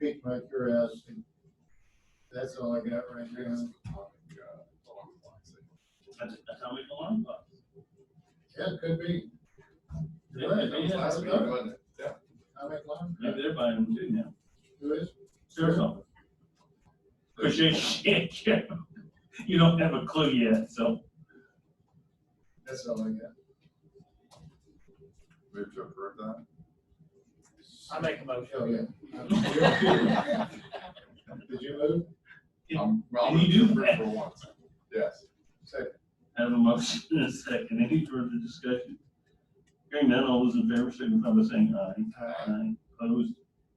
piqued my curiosity. That's all I got right now. That's, that's how we go on, but. Yeah, it could be. they- Right, they- that was they- last week. Yeah. I make one. Maybe they're buying them too now. Who is? Arizona. Cause you, you, you don't have a clue yet, so. That's all I got. Move to approve that. I make a motion. Oh, Um, yeah. Did you move? Um, well, And you do approve that. For once. Yes. Second. Have a motion and a second. Any further discussion? Hearing none, all those in favor signify by saying aye. Aye. Aye. Opposed,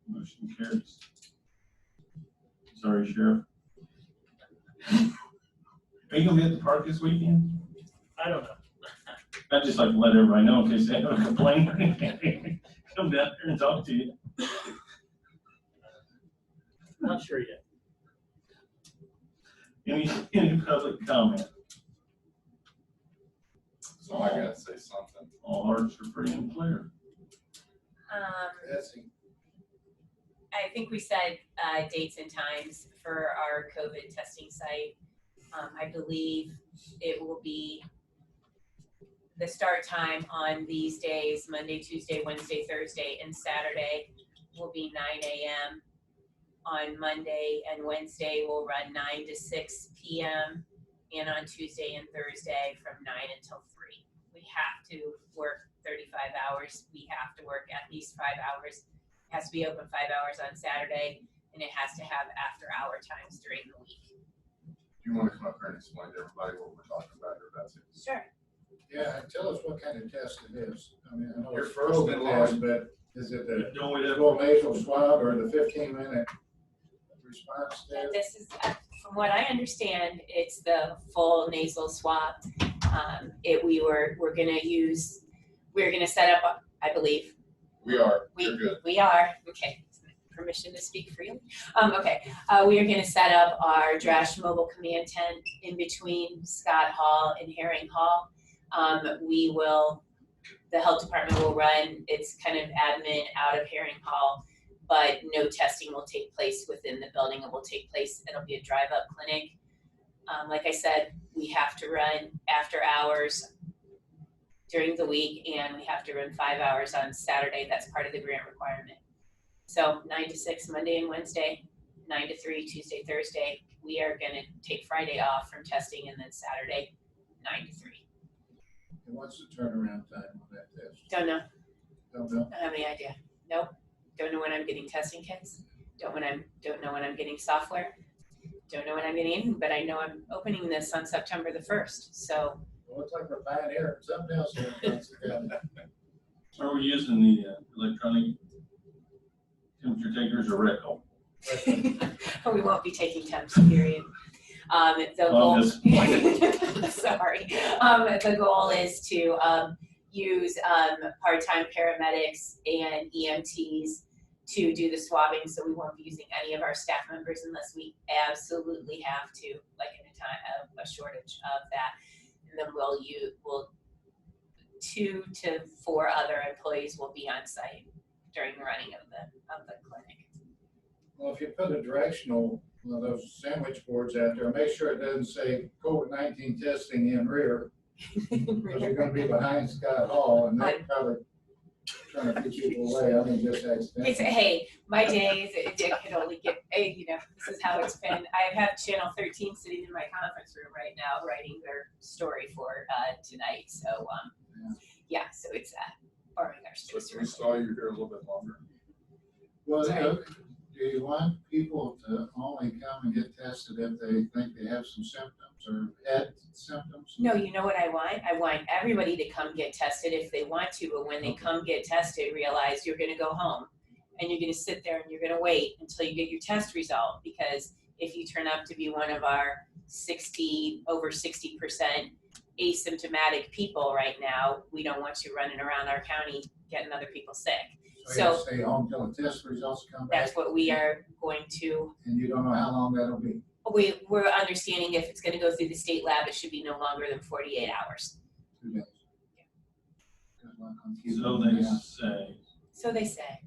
motion carries. Sorry, Sheriff. Are you gonna be at the park this weekend? I don't know. I'd just like to let everybody know in case they have a complaint or anything. Come down there and talk to you. Not sure yet. Any, any public comment? So I gotta say something. All hearts are free and clear. Um, That's it. I think we said, uh, dates and times for our COVID testing site. Um, I believe it will be the start time on these days, Monday, Tuesday, Wednesday, Thursday, and Saturday will be nine AM. On Monday and Wednesday, we'll run nine to six PM, and on Tuesday and Thursday from nine until three. We have to work thirty-five hours, we have to work at least five hours it has to be open five hours on Saturday, and it has to have after-hour times during the week. Do you wanna come up here and explain to everybody what we're talking about here, Betsy? Sure. Yeah, and tell us what kind of test it is. I mean, I know Your it's first COVID and last. test, but is it the Don't we have- full nasal swab or the fifteen minute response test? And this is, uh, from what I understand, it's the full nasal swab. Um, it, we were, we're gonna use, we're gonna set up, I believe, We are, We- you're good. We are, okay, permission to speak freely. Um, okay, uh, we are gonna set up our Drash Mobile Command Tent in between Scott Hall and Herring Hall. Um, we will, the health department will run, it's kind of admin out of Herring Hall, but no testing will take place within the building, it will take place, it'll be a drive-up clinic. Um, like I said, we have to run after hours during the week and we have to run five hours on Saturday. That's part of the grant requirement. So nine to six, Monday and Wednesday, nine to three, Tuesday, Thursday. We are gonna take Friday off from testing and then Saturday, nine to three. And what's the turnaround time on that test? Don't know, Don't know. don't have any idea. Nope. Don't know when I'm getting testing kits. Don't when I'm, don't know when I'm getting software. Don't know when I'm getting anything, but I know I'm opening this on September the first, so. Well, it's like we're buying air, something else. here. That's the Are we using the uh, electronic temperature takers or rectal? guy. We won't be taking temps, period. Um, the Well, goal. this- Sorry. Um, the goal is to, um, use, um, part-time paramedics and EMTs to do the swabbing, so we won't be using any of our staff members unless we absolutely have to, like in a time of a shortage of that. And then we'll you, we'll, two to four other employees will be on site during the running of the, of the clinic. Well, if you put a directional, one of those sandwich boards out there, make sure it doesn't say COVID nineteen testing in rear. Because you're gonna be behind Scott Hall and they're probably trying to get you away. I mean, just It's, accidentally. hey, my days, it it could only get, hey, you know, this is how it's been. I have Channel thirteen sitting in my conference room right now, writing their story for, uh, tonight, so, um, yeah, so it's, uh, borrowing our So space. can we stall you here a little bit longer? Well, look, do you want people to only come and get tested if they think they have some symptoms or had symptoms? No, you know what I want? I want everybody to come get tested if they want to, but when they come get tested, realize you're gonna go home. And you're gonna sit there and you're gonna wait until you get your test result, because if you turn up to be one of our sixty, over sixty percent asymptomatic people right now, we don't want you running around our county getting other people sick. So you have to stay home till the test results come back That's what we are going to, and you don't know how long that'll be. we, we're understanding if it's gonna go through the state lab, it should be no longer than forty-eight hours. Two days. Good luck on keeping So them they down. say, So they say.